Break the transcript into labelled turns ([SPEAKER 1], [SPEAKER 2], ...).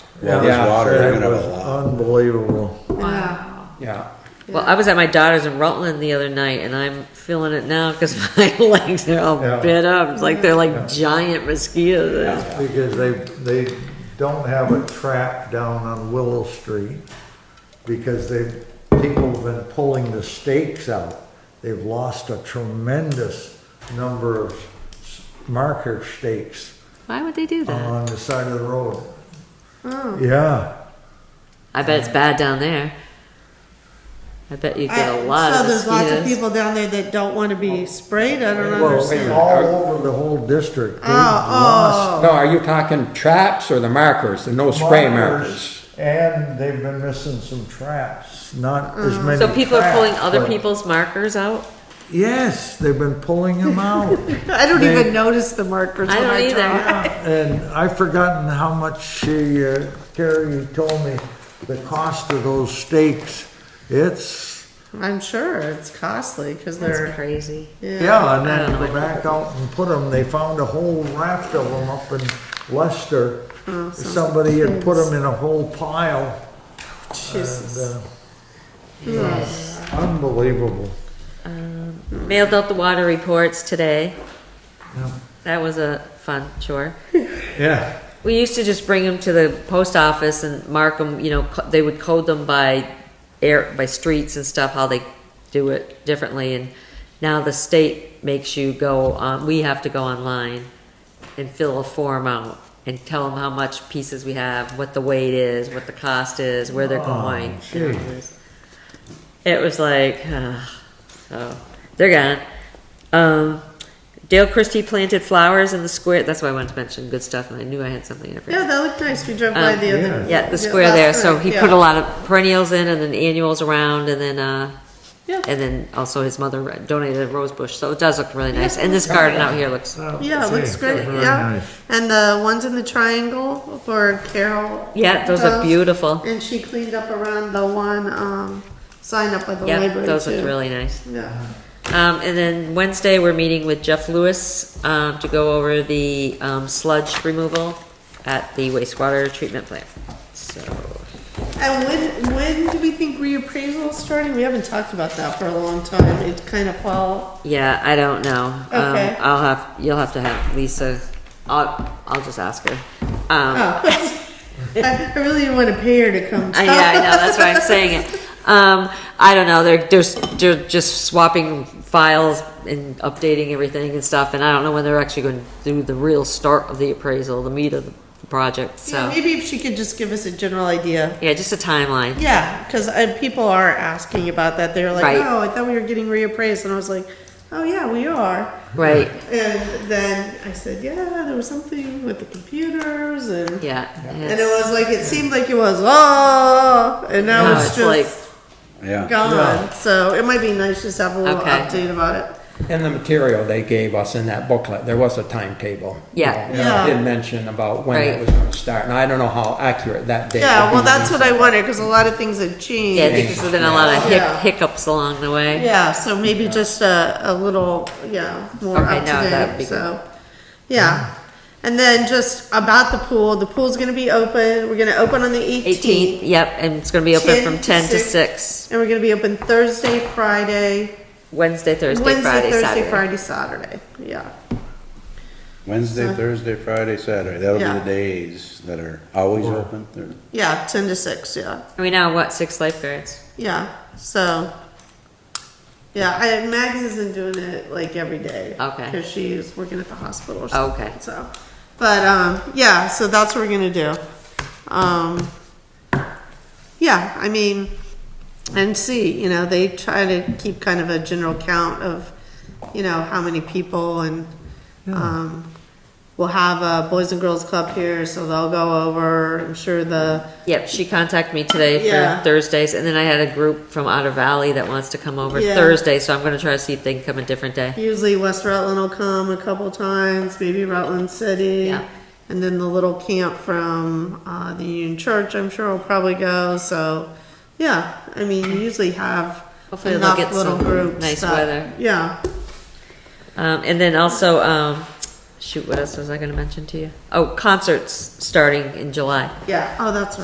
[SPEAKER 1] Well,
[SPEAKER 2] Yeah,
[SPEAKER 1] there's water,
[SPEAKER 2] it
[SPEAKER 1] they're gonna have
[SPEAKER 2] was
[SPEAKER 1] a lot.
[SPEAKER 2] Unbelievable,
[SPEAKER 3] Wow.
[SPEAKER 2] yeah.
[SPEAKER 4] Well, I was at my daughter's in Rutland the other night, and I'm feeling it now because my legs are all
[SPEAKER 2] Yeah.
[SPEAKER 4] bit up. It's like they're like giant mosquitoes.
[SPEAKER 2] Because they, they don't have a trap down on Willow Street because they, people have been pulling the stakes out. They've lost a tremendous number of s- marker stakes
[SPEAKER 4] Why would they do that?
[SPEAKER 2] on the side of the road. Yeah,
[SPEAKER 4] I bet it's bad down there. I bet you get a lot
[SPEAKER 3] so
[SPEAKER 4] of
[SPEAKER 3] there's lots of
[SPEAKER 4] mosquitoes.
[SPEAKER 3] people down there that don't want to be sprayed. I don't
[SPEAKER 2] well,
[SPEAKER 3] understand.
[SPEAKER 2] all over the whole district, they've lost
[SPEAKER 3] Oh,
[SPEAKER 5] No, are you talking traps or the markers, the no spray markers?
[SPEAKER 2] And they've been missing some traps, not as many.
[SPEAKER 4] Mm. So people are
[SPEAKER 2] traps,
[SPEAKER 4] pulling other
[SPEAKER 2] but-
[SPEAKER 4] people's markers out.
[SPEAKER 2] Yes, they've been pulling them out.
[SPEAKER 3] oh! I don't
[SPEAKER 2] They-
[SPEAKER 3] even notice the markers.
[SPEAKER 4] I
[SPEAKER 3] when
[SPEAKER 4] don't either.
[SPEAKER 3] drive.
[SPEAKER 2] And I've forgotten how much she, uh, Terry told me the cost of those stakes. It's,
[SPEAKER 3] I'm sure it's costly because
[SPEAKER 4] That's
[SPEAKER 3] they're
[SPEAKER 4] crazy.
[SPEAKER 2] yeah, and
[SPEAKER 4] I
[SPEAKER 2] then
[SPEAKER 4] don't
[SPEAKER 2] go
[SPEAKER 4] know.
[SPEAKER 2] back out and put them, they found a whole raft of them up in Leicester.
[SPEAKER 4] Oh,
[SPEAKER 2] Somebody had put them in a whole pile and,
[SPEAKER 3] Jesus.
[SPEAKER 2] uh, unbelievable.
[SPEAKER 4] Mailed out the water reports today.
[SPEAKER 2] Yeah.
[SPEAKER 4] That was a fun chore.
[SPEAKER 2] Yeah.
[SPEAKER 4] We used to just bring them to the post office and mark them, you know, co- they would code them by air, by streets and stuff, how they do it differently. And now the state makes you go, on we have to go online and fill a form out and tell them how much pieces we have, what the weight is, what the cost is, where they're
[SPEAKER 2] Oh,
[SPEAKER 4] going.
[SPEAKER 2] gee.
[SPEAKER 4] It was like, uh, so they're gone. Um, Dale Christie planted flowers in the square. That's why I wanted to mention good stuff, and I knew I had something. and I forgot.
[SPEAKER 3] Yeah, that looked nice. We drove by
[SPEAKER 4] Um,
[SPEAKER 3] the other.
[SPEAKER 4] Yeah, the square
[SPEAKER 3] last
[SPEAKER 4] there, so
[SPEAKER 3] night,
[SPEAKER 4] he
[SPEAKER 3] yeah.
[SPEAKER 4] put a lot of perennials in and then annuals around and then, uh,
[SPEAKER 3] Yeah.
[SPEAKER 4] and then also his mother donated a rose bush, so it does look really nice. And this garden out here looks,
[SPEAKER 3] Yeah, it looks great.
[SPEAKER 2] Very
[SPEAKER 3] Yeah,
[SPEAKER 2] nice.
[SPEAKER 3] and the ones in the triangle for Carol.
[SPEAKER 4] yeah, those are beautiful.
[SPEAKER 3] And she cleaned up around the one um, sign up by the
[SPEAKER 4] Yeah,
[SPEAKER 3] library
[SPEAKER 4] those
[SPEAKER 3] too.
[SPEAKER 4] look really nice.
[SPEAKER 3] yeah.
[SPEAKER 4] Um, and then Wednesday, we're meeting with Jeff Lewis, um, to go over the, um, sludge removal at the wastewater treatment plant, so.
[SPEAKER 3] And when when do we think reappraisal is starting? We haven't talked about that for a long time. It kind of fall.
[SPEAKER 4] Yeah, I don't know.
[SPEAKER 3] Okay.
[SPEAKER 4] Um, I'll have, you'll have to have Lisa, I'll, I'll just ask her. Um,
[SPEAKER 3] Oh. I, I really didn't want to pay her to come.
[SPEAKER 4] I, yeah, I know. That's why I'm saying it. Um, I don't know. They're, they're s- they're just swapping files and updating everything and stuff, and I don't know when they're actually going to do the real start of the appraisal, the meat of the project.
[SPEAKER 3] Yeah,
[SPEAKER 4] So
[SPEAKER 3] maybe if she could just give us a general idea.
[SPEAKER 4] yeah, just a timeline.
[SPEAKER 3] Yeah, because uh, people are asking about that. They're like,
[SPEAKER 4] Right.
[SPEAKER 3] "Oh, I thought we were getting reappraised," and I was like, "Oh yeah, we are."
[SPEAKER 4] Right.
[SPEAKER 3] And then I said, "Yeah, there was something with the computers and."
[SPEAKER 4] Yeah.
[SPEAKER 3] And it was like it seemed like it was oh, and now
[SPEAKER 4] No,
[SPEAKER 3] it's,
[SPEAKER 4] it's
[SPEAKER 3] just
[SPEAKER 1] Yeah,
[SPEAKER 3] gone.
[SPEAKER 2] Yeah.
[SPEAKER 3] So it might be nice just to have a little
[SPEAKER 4] Okay.
[SPEAKER 3] update about it.
[SPEAKER 5] And the material they gave us in that booklet, there was a timetable.
[SPEAKER 4] Yeah.
[SPEAKER 5] It
[SPEAKER 3] Yeah.
[SPEAKER 5] Did mention about when
[SPEAKER 4] Right.
[SPEAKER 5] it was gonna start, and I don't know how accurate that date.
[SPEAKER 3] Yeah,
[SPEAKER 5] would
[SPEAKER 3] well,
[SPEAKER 5] be.
[SPEAKER 3] that's what I wanted because a lot of things have changed.
[SPEAKER 4] yeah, I think there's been a lot of hic-
[SPEAKER 3] Yeah.
[SPEAKER 4] hiccups along the way.
[SPEAKER 3] Yeah, so maybe just a, a little, yeah, more
[SPEAKER 4] Okay,
[SPEAKER 3] up to
[SPEAKER 4] no, that would
[SPEAKER 3] date,
[SPEAKER 4] be
[SPEAKER 3] so, yeah. And then just about the pool, the pool's gonna be open, we're gonna open on the
[SPEAKER 4] 18th.
[SPEAKER 3] eighteenth,
[SPEAKER 4] Yep, and it's going to be open
[SPEAKER 3] 10
[SPEAKER 4] from
[SPEAKER 3] to
[SPEAKER 4] 10 to
[SPEAKER 3] 6.
[SPEAKER 4] 6,
[SPEAKER 3] and we're gonna be open Thursday, Friday,
[SPEAKER 4] Wednesday, Thursday, Friday,
[SPEAKER 3] Wednesday, Thursday,
[SPEAKER 4] Saturday.
[SPEAKER 3] Friday, Saturday, yeah.
[SPEAKER 1] Wednesday, Thursday, Friday, Saturday, that'll be
[SPEAKER 3] Yeah.
[SPEAKER 1] the days that are always open. They're-
[SPEAKER 3] Yeah, ten to six, yeah,
[SPEAKER 4] We now what six lifeguards?
[SPEAKER 3] yeah, so, yeah, I, Mags isn't doing it like every day.
[SPEAKER 4] Okay.
[SPEAKER 3] Cause she's working at the hospital or something.
[SPEAKER 4] Okay.
[SPEAKER 3] So, but um, yeah, so that's what we're gonna do. Um, yeah, I mean, and see, you know, they try to keep kind of a general count of, you know, how many people and um, we'll have a boys and girls club here, so they'll go over. I'm sure the
[SPEAKER 4] Yep, she contacted me today
[SPEAKER 3] Yeah.
[SPEAKER 4] for Thursdays, and then I had a group from Otter Valley that wants to come over
[SPEAKER 3] Yeah.
[SPEAKER 4] Thursday, so I'm gonna try to see if they can come a different day.
[SPEAKER 3] usually West Rutland will come a couple times, maybe Rutland City.
[SPEAKER 4] Yeah.
[SPEAKER 3] And then the little camp from uh, the Union Church, I'm sure will probably go. So, yeah, I mean, you usually have
[SPEAKER 4] Hopefully they'll
[SPEAKER 3] enough
[SPEAKER 4] get
[SPEAKER 3] little
[SPEAKER 4] some
[SPEAKER 3] groups.
[SPEAKER 4] nice
[SPEAKER 3] that-
[SPEAKER 4] weather.
[SPEAKER 3] Yeah,
[SPEAKER 4] Um, and then also, um, shoot, what else was I gonna mention to you? Oh, concerts starting in July.
[SPEAKER 3] Yeah, oh, that's right.